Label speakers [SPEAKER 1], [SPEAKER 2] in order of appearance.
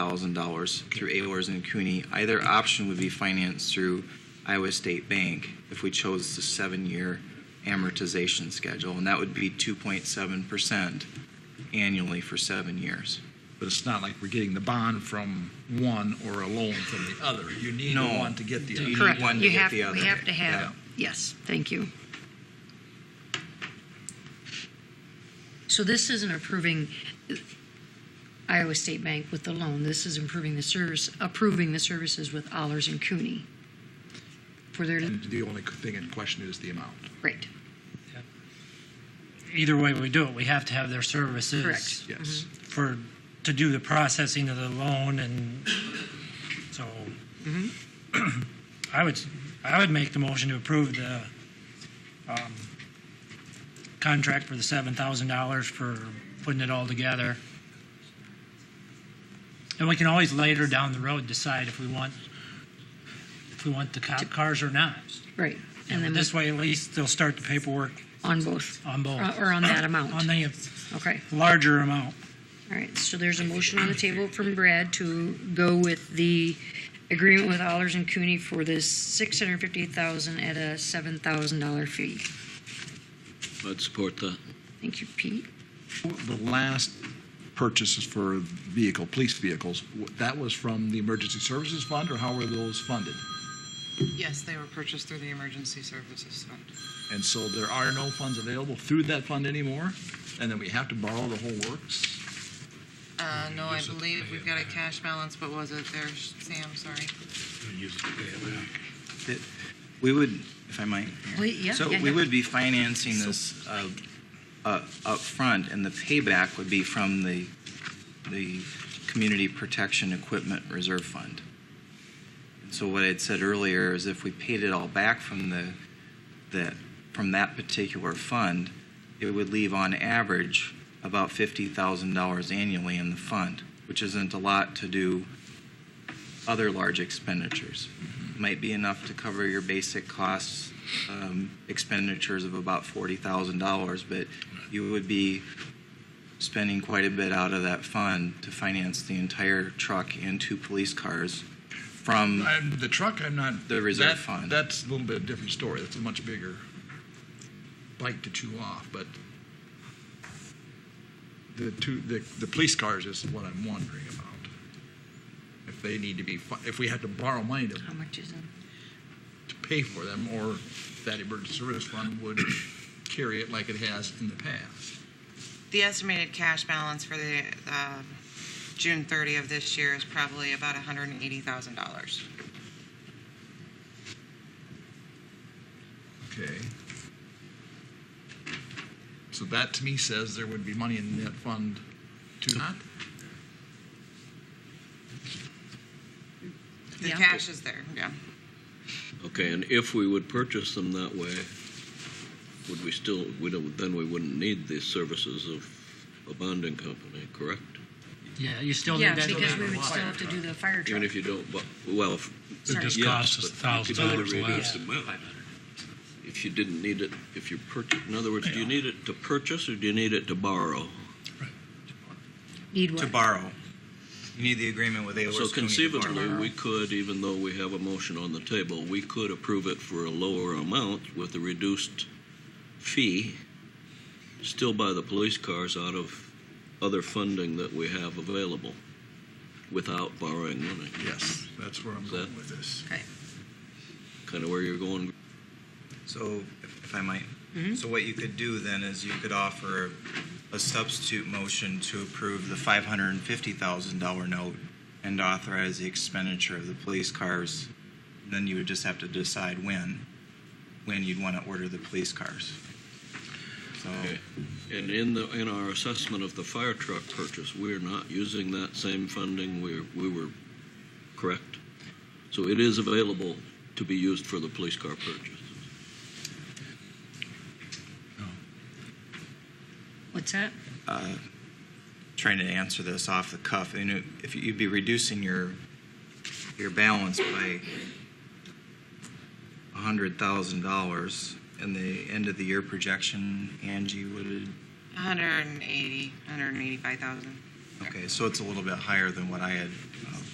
[SPEAKER 1] $100,000 through Ayers and Cooney. Either option would be financed through Iowa State Bank if we chose the seven-year amortization schedule, and that would be 2.7% annually for seven years.
[SPEAKER 2] But it's not like we're getting the bond from one or a loan from the other. You need
[SPEAKER 1] No.
[SPEAKER 2] one to get the
[SPEAKER 1] You need
[SPEAKER 2] other.
[SPEAKER 3] Correct.
[SPEAKER 1] one to
[SPEAKER 3] You
[SPEAKER 1] get
[SPEAKER 3] have-
[SPEAKER 1] the other.
[SPEAKER 3] We have to
[SPEAKER 2] Yeah.
[SPEAKER 3] have, yes, thank you. So this isn't approving Iowa State Bank with the loan. This is improving the service, approving the services with Allers and Cooney for their,
[SPEAKER 1] Mm.
[SPEAKER 4] And the only thing in question is the amount.
[SPEAKER 3] right,
[SPEAKER 5] Either way we do it, we have to have their services.
[SPEAKER 3] Correct. Mm-hmm.
[SPEAKER 4] Yes.
[SPEAKER 5] For, to do the processing of the loan and so.
[SPEAKER 3] Mm-hmm.
[SPEAKER 5] I would, I would make the motion to approve the, um, contract for the seven thousand dollars for putting it all together. And we can always later down the road decide if we want, if we want the cop cars or not.
[SPEAKER 3] right. And then
[SPEAKER 5] This way, at least they'll start the paperwork
[SPEAKER 3] on both,
[SPEAKER 5] on both.
[SPEAKER 3] Uh, or on that amount.
[SPEAKER 5] on the
[SPEAKER 3] Okay,
[SPEAKER 5] larger amount.
[SPEAKER 3] all right. So there's a motion on the table from Brad to go with the agreement with Allers and Cooney for this 650000 at a $7,000 fee.
[SPEAKER 6] I'd support that.
[SPEAKER 3] Thank you, Pete.
[SPEAKER 4] The last purchases for vehicle, police vehicles, w- that was from the Emergency Services Fund, or how were those funded?
[SPEAKER 7] Yes, they were purchased through the Emergency Services Fund.
[SPEAKER 4] And so there are no funds available through that fund anymore, and then we have to borrow the whole works.
[SPEAKER 7] Uh, no, I believe we've got a cash balance, but was it there, Sam, sorry?
[SPEAKER 1] We would, if I might.
[SPEAKER 3] Wait, yeah,
[SPEAKER 1] So
[SPEAKER 3] yeah,
[SPEAKER 1] we
[SPEAKER 3] yeah.
[SPEAKER 1] would be financing this uh, uh, up front, and the payback would be from the, the Community Protection Equipment Reserve Fund. So what I'd said earlier is if we paid it all back from the, that, from that particular fund, it would leave on average about $50,000 annually in the fund, which isn't a lot to do other large expenditures. Might be enough to cover your basic costs, um, expenditures of about $40,000, but you would be spending quite a bit out of that fund to finance the entire truck and two police cars from,
[SPEAKER 4] I'm, the truck, I'm not.
[SPEAKER 1] The reserve
[SPEAKER 4] that-
[SPEAKER 1] fund.
[SPEAKER 4] That's a little bit of a different story. That's a much bigger bite to chew off, but the two, the, the police cars is what I'm wondering about. If they need to be, fu- if we have to borrow money to,
[SPEAKER 3] How much is it?
[SPEAKER 4] to pay for them, or that emergency service fund would carry it like it has in the past.
[SPEAKER 7] The estimated cash balance for the, um June 30 of this year is probably about $180,000.
[SPEAKER 4] Okay. So that to me says there would be money in that fund to not?
[SPEAKER 7] The
[SPEAKER 3] Yeah.
[SPEAKER 7] cash is there, yeah.
[SPEAKER 6] Okay, and if we would purchase them that way, would we still, we don't, then we wouldn't need the services of a bonding company, correct?
[SPEAKER 5] Yeah, you still
[SPEAKER 3] Yeah,
[SPEAKER 5] need that.
[SPEAKER 3] because we would still have to do the fire
[SPEAKER 6] Even
[SPEAKER 3] truck.
[SPEAKER 6] if you don't, bu- well, if-
[SPEAKER 8] It
[SPEAKER 3] Sorry.
[SPEAKER 8] just
[SPEAKER 6] Yes,
[SPEAKER 8] costs us
[SPEAKER 6] but you
[SPEAKER 8] thousand
[SPEAKER 6] could either
[SPEAKER 8] dollars
[SPEAKER 6] reduce
[SPEAKER 8] less.
[SPEAKER 6] the if you didn't need it, if you purchase, in other words, do you need it to purchase or do you need it to borrow?
[SPEAKER 3] Need
[SPEAKER 1] to
[SPEAKER 3] what?
[SPEAKER 1] borrow. You need the agreement with Ayers
[SPEAKER 6] So
[SPEAKER 1] County. to borrow.
[SPEAKER 6] conceivably, we could, even though we have a motion on the table, we could approve it for a lower amount with a reduced fee, still buy the police cars out of other funding that we have available without borrowing money.
[SPEAKER 4] Yes, that's where I'm going with this.
[SPEAKER 3] Okay.
[SPEAKER 6] Kind of where you're going.
[SPEAKER 1] So, if if I might, so what you could do then is you could offer a substitute motion to approve the five hundred and fifty thousand dollar note and authorize the expenditure of the police cars. Then you would just have to decide when, when you'd want to order the police cars. So,
[SPEAKER 6] Okay. And in the, in our assessment of the fire truck purchase, we're not using that same funding. We're, we were correct. So it is available to be used for the police car purchase.
[SPEAKER 3] What's that?
[SPEAKER 1] trying to answer this off the cuff, and it- if you'd be reducing your, your balance by hundred thousand dollars, and the end of the year projection, Angie, would it
[SPEAKER 7] 180, 185,000.
[SPEAKER 1] Okay, so it's a little bit higher than what I had uh,